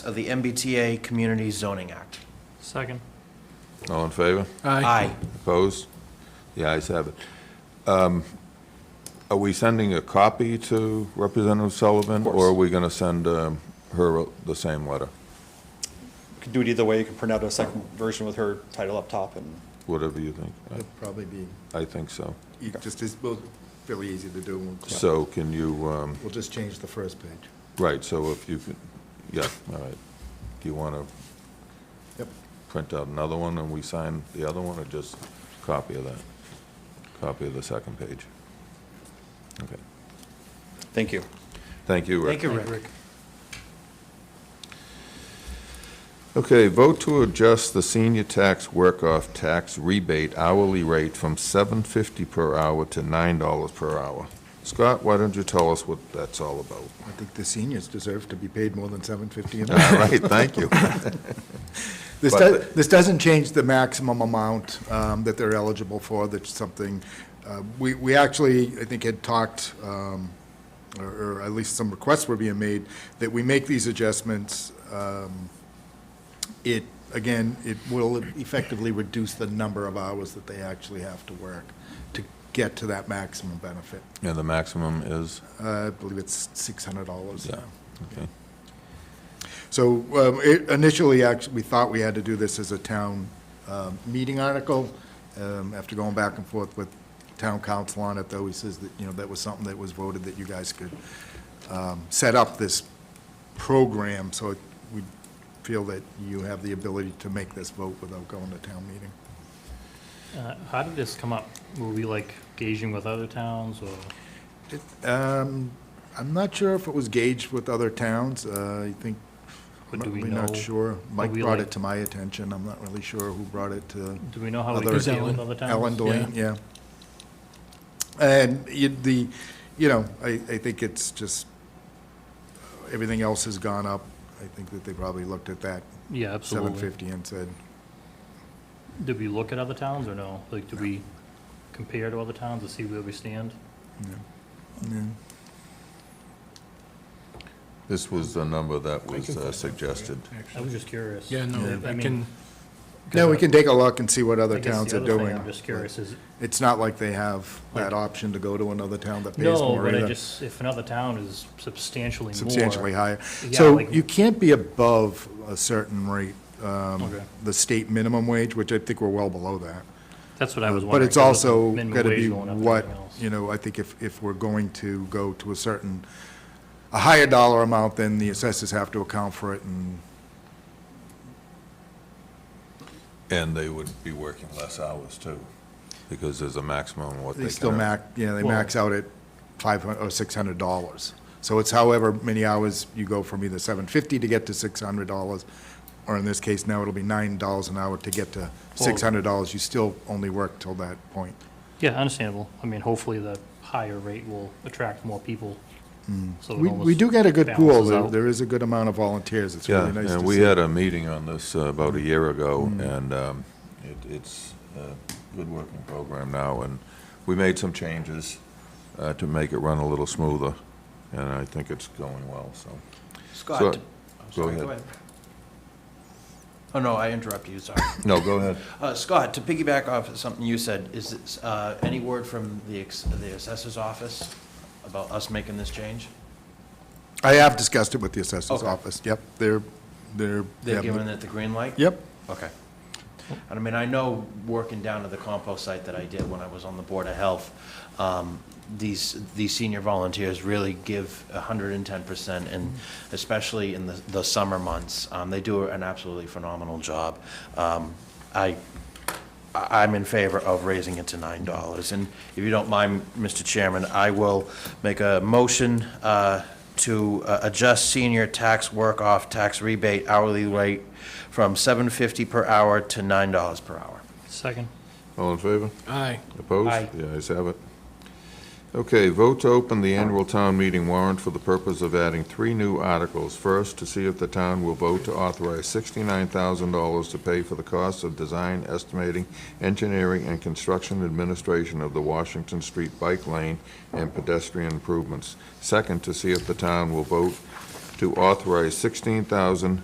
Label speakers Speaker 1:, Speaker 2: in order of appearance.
Speaker 1: of the MBTA Community Zoning Act.
Speaker 2: Second.
Speaker 3: All in favor?
Speaker 1: Aye.
Speaker 3: Opposed? The ayes have it. Um, Are we sending a copy to Representative Sullivan? Or are we going to send um, her the same letter?
Speaker 4: Could do it either way. You can print out a second version with her title up top and
Speaker 3: Whatever you think.
Speaker 5: It'd probably be,
Speaker 3: I- I think so.
Speaker 5: e- just as, well, fairly easy to do. We'll just-
Speaker 3: So can you, um,
Speaker 5: We'll just change the first page.
Speaker 3: right, so if you, could- yeah, all right. Do you want to
Speaker 5: Yep.
Speaker 3: print out another one and we sign the other one, or just copy of that? Copy of the second page? Okay.
Speaker 4: thank you.
Speaker 3: Thank you, Rick.
Speaker 1: Thank you, Rick.
Speaker 3: Okay, vote to adjust the senior tax work-off tax rebate hourly rate from seven fifty per hour to nine dollars per hour. Scott, why don't you tell us what that's all about?
Speaker 5: I think the seniors deserve to be paid more than seven fifty an hour.
Speaker 3: All right, thank you.
Speaker 5: This
Speaker 3: But-
Speaker 5: does, this doesn't change the maximum amount um, that they're eligible for, that's something, uh, we, we actually, I think, had talked, um, or or at least some requests were being made, that we make these adjustments. um, It, again, it will effectively reduce the number of hours that they actually have to work to get to that maximum benefit.
Speaker 3: Yeah, the maximum is,
Speaker 5: Uh, I believe it's $600
Speaker 3: Yeah.
Speaker 5: now.
Speaker 3: okay,
Speaker 5: So um, it- initially, actually, we thought we had to do this as a town um, meeting article. Um, After going back and forth with town council on it, though, he says that, you know, that was something that was voted that you guys could um, set up this program, so it- we feel that you have the ability to make this vote without going to town meeting.
Speaker 2: Uh, How did this come up? Were we like gauging with other towns or?
Speaker 5: Um, I'm not sure if it was gauged with other towns. Uh, I think, I'm
Speaker 2: But do we
Speaker 5: really not
Speaker 2: know-
Speaker 5: sure. Mike
Speaker 2: we
Speaker 5: brought
Speaker 2: like-
Speaker 5: it to my attention. I'm not really sure who brought it to.
Speaker 2: Do we know how Oh, we
Speaker 5: Other-
Speaker 2: could deal
Speaker 6: Ellen.
Speaker 2: with other towns?
Speaker 5: Ellen Deline, yeah. And you- the, you know, I, I think it's just, everything else has gone up. I think that they probably looked at that
Speaker 2: Yeah,
Speaker 5: seven
Speaker 2: absolutely.
Speaker 5: fifty and said,
Speaker 2: Did we look at other towns or no? Like, did we compare to other towns to see where we stand?
Speaker 5: no. No.
Speaker 3: this was the number that was uh, suggested.
Speaker 2: I was just curious.
Speaker 6: Yeah, no,
Speaker 2: I
Speaker 6: I
Speaker 2: mean,
Speaker 6: can,
Speaker 5: No, we can take a look and see what
Speaker 2: I
Speaker 5: other
Speaker 2: guess
Speaker 5: towns
Speaker 2: the
Speaker 5: are
Speaker 2: other
Speaker 5: doing.
Speaker 2: thing I'm just curious is,
Speaker 5: It's not like they have
Speaker 2: Like-
Speaker 5: that option to go to another town that pays
Speaker 2: no,
Speaker 5: more
Speaker 2: but I
Speaker 5: either,
Speaker 2: just, if another town is substantially more.
Speaker 5: substantially higher.
Speaker 2: Yeah,
Speaker 5: So
Speaker 2: like-
Speaker 5: you can't be above a certain rate, um,
Speaker 2: Okay.
Speaker 5: the state minimum wage, which I think we're well below that.
Speaker 2: That's what I was wondering.
Speaker 5: But it's
Speaker 2: 'cause with the
Speaker 5: also
Speaker 2: minimum
Speaker 5: got to
Speaker 2: wage
Speaker 5: be
Speaker 2: going up and
Speaker 5: what,
Speaker 2: everything else.
Speaker 5: you know, I think if, if we're going to go to a certain, a higher dollar amount, then the assessors have to account for it, and
Speaker 3: And they would be working less hours too, because there's a maximum of what they can.
Speaker 5: they still
Speaker 3: earn.
Speaker 5: max, you know, they
Speaker 2: Well-
Speaker 5: max out at five hundred, or six hundred dollars. So it's however many hours you go from either seven fifty to get to six hundred dollars, or in this case, now it'll be nine dollars an hour to get to six hundred dollars. You still only work till that point.
Speaker 2: Yeah, understandable. I mean, hopefully the higher rate will attract more people. So it
Speaker 5: We,
Speaker 2: almost
Speaker 5: we do get a good pool.
Speaker 2: balances
Speaker 5: There-
Speaker 2: out.
Speaker 5: There is a good amount of volunteers. It's
Speaker 3: Yeah,
Speaker 5: really nice to see. Mm.
Speaker 3: and we had a meeting on this uh, about a year ago, and um, it- it's a good working program now, and we made some changes uh, to make it run a little smoother, and I think it's going well, so.
Speaker 1: Scott.
Speaker 3: So-
Speaker 1: I'm
Speaker 3: go
Speaker 1: sorry,
Speaker 3: ahead.
Speaker 1: Oh, no, I interrupted you, sorry.
Speaker 3: No, go ahead.
Speaker 1: Uh, Scott, to piggyback off of something you said, is it, uh, any word from the ex- the assessor's office about us making this change?
Speaker 5: I have discussed it with the assessor's
Speaker 1: Okay.
Speaker 5: office, yep, they're, they're. they
Speaker 1: They're
Speaker 5: have the-
Speaker 1: giving it the green light?
Speaker 5: Yep,
Speaker 1: Okay. And I mean, I know, working down at the compost site that I did when I was on the Board of Health, um, these, these senior volunteers really give hundred and ten percent, and especially in the, the summer months. Um, they do an absolutely phenomenal job. Um, I, I- I'm in favor of raising it to nine dollars. And if you don't mind, Mr. Chairman, I will make a motion uh, to uh, adjust senior tax work-off tax rebate hourly rate from seven fifty per hour to nine dollars per hour.
Speaker 2: Second.
Speaker 3: All in favor?
Speaker 6: aye,
Speaker 3: Opposed?
Speaker 1: Aye.
Speaker 3: The ayes have it. Okay, vote to open the annual town meeting warrant for the purpose of adding three new articles. First, to see if the town will vote to authorize $69,000 to pay for the cost of design, estimating, engineering, and construction administration of the Washington Street Bike Lane and pedestrian improvements. Second, to see if the town will vote to authorize sixteen thousand